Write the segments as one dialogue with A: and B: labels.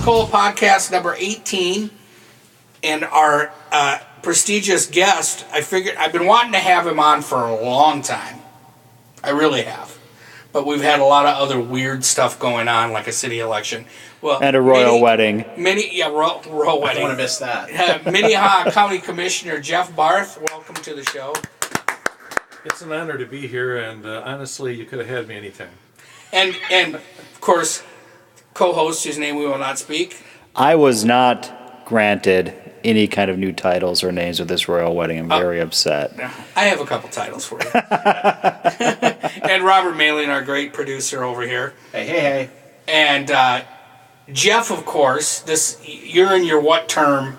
A: podcast number 18 and our uh, prestigious guest. I figured I've been wanting to have him on for a long time. I really have. But we've had a lot of other weird stuff going on, like a city election. Well,
B: and a royal
A: many-
B: wedding.
A: Many, yeah, royal, royal
C: I don't
A: wedding.
C: want to miss that.
A: Uh, Minnehaha County Commissioner Jeff Barth, welcome to the show.
D: It's an honor to be here, and uh, honestly, you could have had me anytime.
A: And, and of course, co host, whose name we will not speak.
B: I was not granted any kind of new titles or names with this royal wedding. I'm very upset.
A: I have a couple titles for you. and Robert Malin, our great producer over here.
C: Hey, hey, hey.
A: And uh, Jeff, of course, this you're in your what term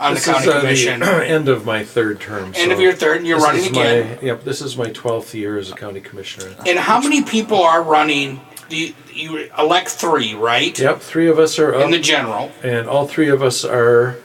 A: on
D: This
A: the
D: is
A: county
D: uh,
A: commission?
D: the end of my third term.
A: End of your third, and you're running again.
D: My, yep, this is my 12th year as a county commissioner.
A: and how many people are running? Do you, you elect three, right?
D: Yep, three of us are up,
A: In the general.
D: and all three of us are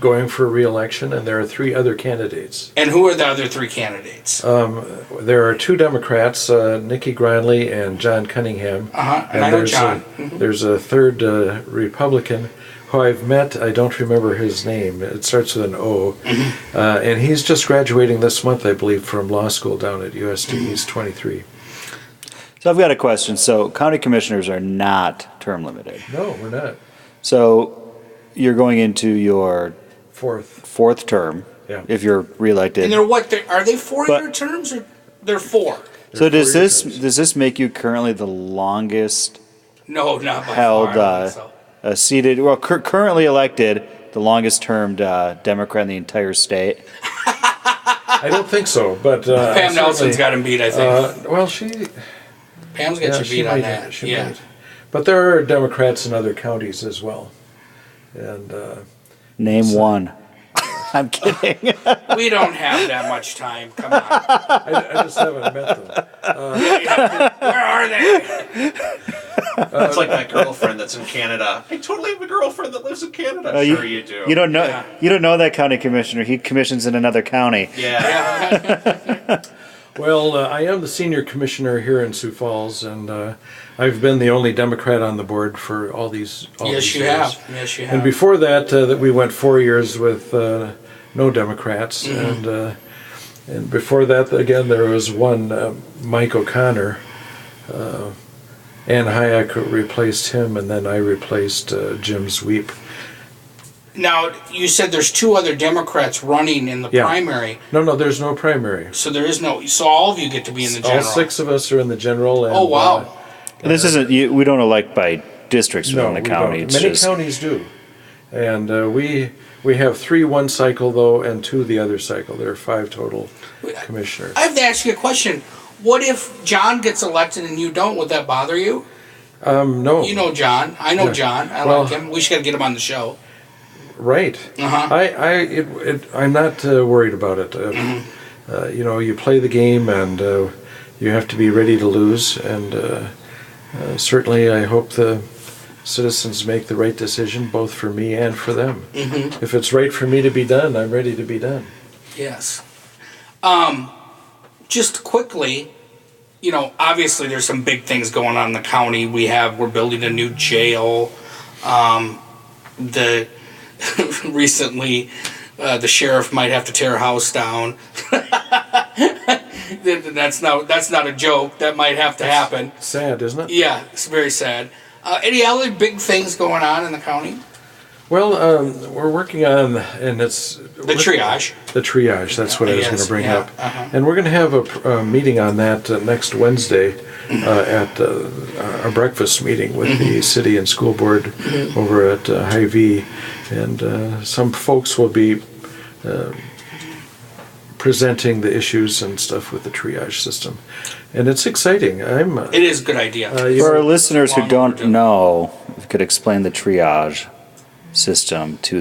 D: going for reelection, and there are three other candidates.
A: And who are the other three candidates?
D: Uh, There are two Democrats, uh, Nikki Grindley and John Cunningham.
A: Uh-huh, and I know
D: there's,
A: John. Mm-hmm.
D: A, there's a third uh, Republican who I've met. I don't remember his name. It starts with an O.
A: Mm-hmm.
D: Uh, and he's just graduating this month, I believe, from law school down at USD.
A: Mm-hmm.
D: He's 23.
B: So I've got a question. So county commissioners are not term limited.
D: No, we're not.
B: So you're going into your
D: Fourth.
B: fourth term
D: Yeah.
B: if you're
A: and they're
B: reelected.
A: what? They're, are they four-year
B: But-
A: terms or they're four?
B: So does
D: four-year
B: this
D: terms.
B: does this make you currently the longest
A: No, not by far. I
B: held
A: don't
B: uh,
A: think so.
B: uh, seated, well, cur- currently elected, the longest termed uh, Democrat in the entire state?
D: I don't think so, but.
A: Pam
D: Uh, certainly-
A: Nelson's got him beat, I think.
D: Uh, well, she.
A: Pam's got
D: Yeah,
A: you
D: she
A: beat on
D: might,
A: that.
D: She
A: yeah.
D: might. But there are Democrats in other counties as well. And. Uh,
B: Name one. I'm kidding.
A: We don't have that much time. Come on.
D: I, I just haven't met them.
A: Where are they?
C: That's like my girlfriend that's in Canada. I totally have a girlfriend that lives in Canada.
B: Oh,
C: sure you, do.
B: You don't know.
A: Yeah.
B: You don't know that county commissioner. He commissions in another county.
C: Yeah.
D: Well, uh, I am the senior commissioner here in Sioux Falls, and uh, I've been the only Democrat on the board for all these. All
A: Yes,
D: these
A: you
D: years.
A: have. Yes, you
D: And
A: have.
D: before that, uh, that we went four years with uh, no Democrats,
A: Mm-hmm.
D: and uh, and before that, again, there was one uh, Mike O'Connor. Uh, Ann Hayek replaced him, and then I replaced uh, Jim Zweep.
A: Now, you said there's two other Democrats running in the
D: Yeah.
A: primary,
D: No, no, there's no primary.
A: so there is no. So all of you get to be in the general.
D: All six of us are in the general. And,
A: Oh,
D: uh,
A: wow.
B: This isn't. You, we don't elect by districts within the
D: we
B: county.
D: don't.
B: It's
D: Many
B: just
D: counties do, and uh, we we have three one cycle though, and two the other cycle. There are five total commissioners.
A: I have to ask you a question. What if John gets elected and you don't? Would that bother you?
D: Um, no,
A: You know John. I know
D: Yeah.
A: John. I
D: Well-
A: like him. We should gotta get him on the show.
D: right?
A: Uh-huh.
D: I I it, it, I'm not uh, worried about it. Uh, uh, you know, you play the game, and uh, you have to be ready to lose. And uh, uh, certainly, I hope the citizens make the right decision, both for me and for them.
A: Mm-hmm.
D: If it's right for me to be done, I'm ready to be done.
A: Yes. Um, just quickly, you know, obviously there's some big things going on in the county. We have we're building a new jail. Um, the recently, uh, the sheriff might have to tear a house down. That- that's not that's not a joke. That might have to happen.
D: Sad, isn't it?
A: Yeah, it's very sad. Uh, any other big things going on in the county?
D: Well, um, we're working on, and it's
A: The triage.
D: The triage. That's what I was
A: Yes,
D: going to bring
A: yeah,
D: up,
A: uh-huh.
D: and we're going to have a, pr- a meeting on that uh, next Wednesday uh, at uh, a breakfast meeting with
A: Mm-hmm.
D: the city and school board over at uh, High V, and uh, some folks will be. Uh, presenting the issues and stuff with the triage system and it's exciting i'm uh,
A: It is a good idea.
D: uh, you
B: for our
D: know,
B: listeners who
A: Long
B: don't
A: overdue.
B: know. If you could explain the triage system to